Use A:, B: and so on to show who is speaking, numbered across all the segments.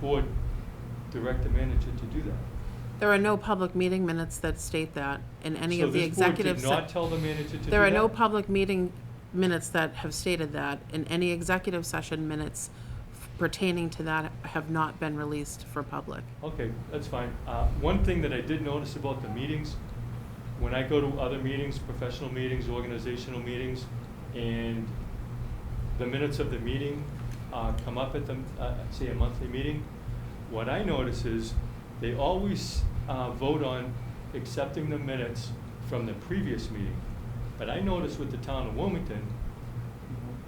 A: board direct the manager to do that.
B: There are no public meeting minutes that state that in any
A: So
B: of the
A: this board
B: executive. se-
A: did not tell the manager to do that?
B: There are no public meeting minutes that have stated that, and any executive session minutes pertaining to that have not been released for public.
A: Okay, that's fine. Uh, One thing that I did notice about the meetings, when I go to other meetings, professional meetings, organizational meetings, and the minutes of the meeting uh, come up at the, uh, say, a monthly meeting, what I notice is they always uh, vote on accepting the minutes from the previous meeting. But I notice with the town of Wilmington,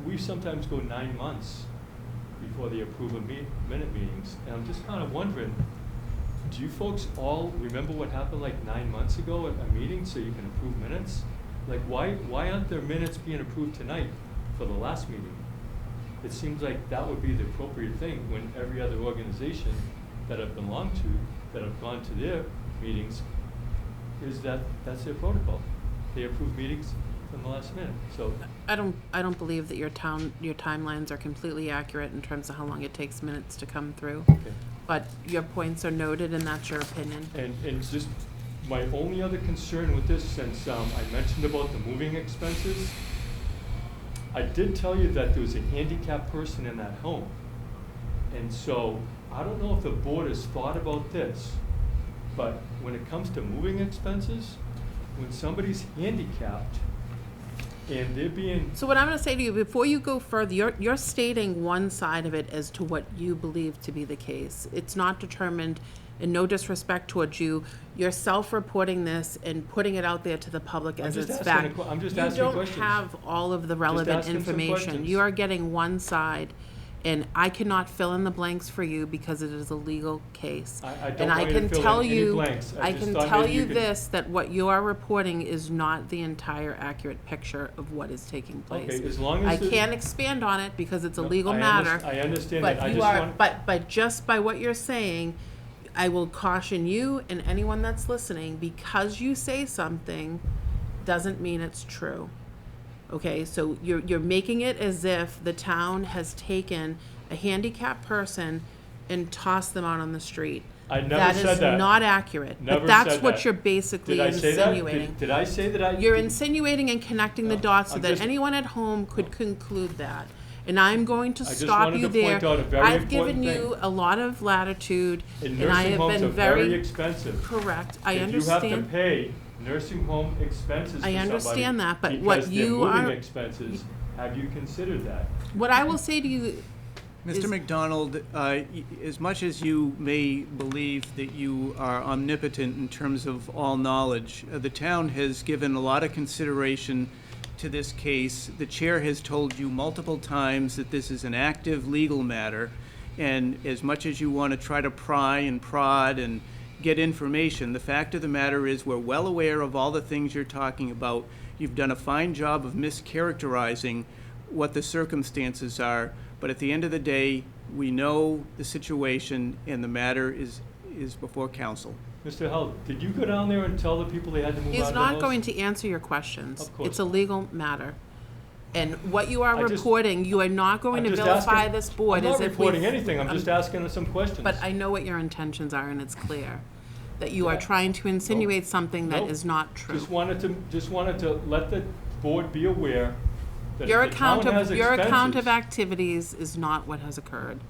A: we sometimes go nine months before they approve of meet, minute meetings. And I'm just kind of wondering, do you folks all remember what happened like nine months ago at a meeting so you can approve minutes? Like, why, why aren't there minutes being approved tonight for the last meeting? It seems like that would be the appropriate thing when every other organization that I've belonged to, that have gone to their meetings, is that, that's their protocol. They approve meetings from the last minute, so.
B: I don't, I don't believe that your town, your timelines are completely accurate in terms of how long it takes minutes to come through. But your points are noted, and that's your opinion.
A: And, and just, my only other concern with this, since um, I mentioned about the moving expenses, I did tell you that there was a handicapped person in that home. And so, I don't know if the board has thought about this, but when it comes to moving expenses, when somebody's handicapped and they're being
B: So what I'm gonna say to you, before you go further, you're, you're stating one side of it as to what you believe to be the case. It's not determined, and no disrespect towards you, you're self-reporting this and putting it out there to the public
A: I'm
B: as
A: just
B: it's
A: asking a
B: fact.
A: que- I'm just asking questions.
B: You don't have all of the relevant
A: asking some
B: information.
A: questions.
B: You are getting one side, and I cannot fill in the blanks for you because it is a legal case.
A: I- I don't
B: And I
A: want you to
B: can
A: fill in
B: tell
A: any
B: you-
A: blanks. I just
B: can
A: thought
B: tell
A: maybe you
B: you
A: could-
B: this, that what you are reporting is not the entire accurate picture of what is taking place.
A: Okay, as long as
B: I
A: the-
B: can't expand on it because it's a
A: No,
B: legal
A: I
B: matter.
A: underst- I understand that. I
B: But you
A: just
B: are,
A: want-
B: but, but just by what you're saying, I will caution you and anyone that's listening, because you say something doesn't mean it's true. Okay, so you're, you're making it as if the town has taken a handicapped person and tossed them out on the street.
A: I never
B: That
A: said
B: is
A: that.
B: not accurate.
A: Never
B: But that's
A: said that.
B: what you're basically
A: Did I say that? Did-
B: insinuating.
A: Did I say that I?
B: You're
A: did-
B: insinuating and connecting the
A: No,
B: dots so
A: I'm
B: that
A: just-
B: anyone at home could conclude that. And I'm going to
A: I just
B: stop
A: wanted
B: you
A: to
B: there.
A: point out a very
B: I've given
A: important
B: you
A: thing.
B: a lot of latitude,
A: And
B: and I
A: nursing
B: have
A: homes are
B: been
A: very
B: very
A: expensive.
B: correct. I
A: If you have to
B: understand.
A: pay nursing home expenses for
B: I
A: somebody
B: understand that, but what you
A: Because they're
B: are-
A: moving expenses, have you considered that?
B: What I will say to you,
C: Mr.
B: is-
C: McDonald, uh, y- as much as you may believe that you are omnipotent in terms of all knowledge, uh, the town has given a lot of consideration to this case. The chair has told you multiple times that this is an active legal matter, and as much as you want to try to pry and prod and get information. The fact of the matter is, we're well aware of all the things you're talking about. You've done a fine job of mischaracterizing what the circumstances are, but at the end of the day, we know the situation and the matter is, is before council.
A: Mr. Held, did you go down there and tell the people they had to move out of
B: he's
A: the
B: not
A: house?
B: going to answer your questions.
A: Of course
B: It's a
A: not.
B: legal matter. And what you are
A: I just-
B: reporting, you are not going
A: I'm
B: to
A: just
B: vilify
A: asking-
B: this board as if we.
A: I'm not reporting anything, I'm just asking some questions.
B: um, But I know what your intentions are, and it's clear that you are trying to insinuate something that
A: Nope.
B: is not true.
A: Just wanted to, just wanted to let the board be aware that if
B: Your
A: the town
B: account
A: has
B: of, your account of
A: expenses-
B: activities is not what has occurred.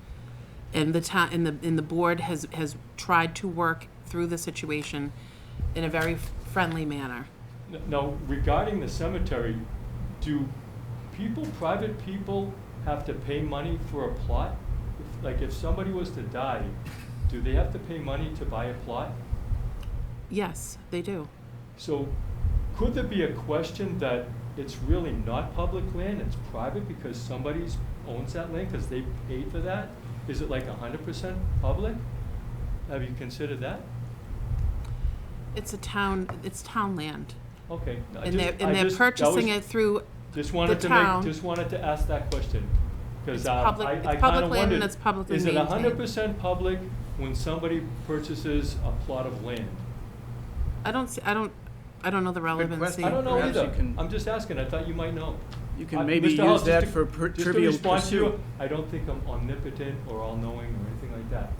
B: And the town, and the, and the board has, has tried to work through the situation in a very friendly manner.
A: Now, regarding the cemetery, do people, private people, have to pay money for a plot? If- Like, if somebody was to die, do they have to pay money to buy a plot?
B: Yes, they do.
A: So, could there be a question that it's really not public land, it's private because somebody owns that land, because they paid for that? Is it like hundred percent public? Have you considered that?
B: It's a town, it's town land.
A: Okay. I
B: And they're,
A: just- I
B: and they're
A: just- that was-
B: purchasing it through,
A: Just wanted to
B: town.
A: make, just wanted to ask that question,
B: It's
A: because I, I
B: public-
A: kinda
B: it's
A: wondered.
B: public land and it's publicly
A: Is it
B: maintained.
A: hundred percent public when somebody purchases a plot of land?
B: I don't, see- I don't, I don't know the relevancy.
C: question.
A: I don't know
C: Perhaps
A: either,
C: you can-
A: I'm just asking, I thought you might know.
C: You can
A: I-
C: maybe
A: Mr. Hall,
C: use
A: just
C: that
A: to-
C: for per-
A: just to
C: trivial
A: respond to you,
C: pursuit.
A: I don't think I'm omnipotent or all-knowing or anything like that.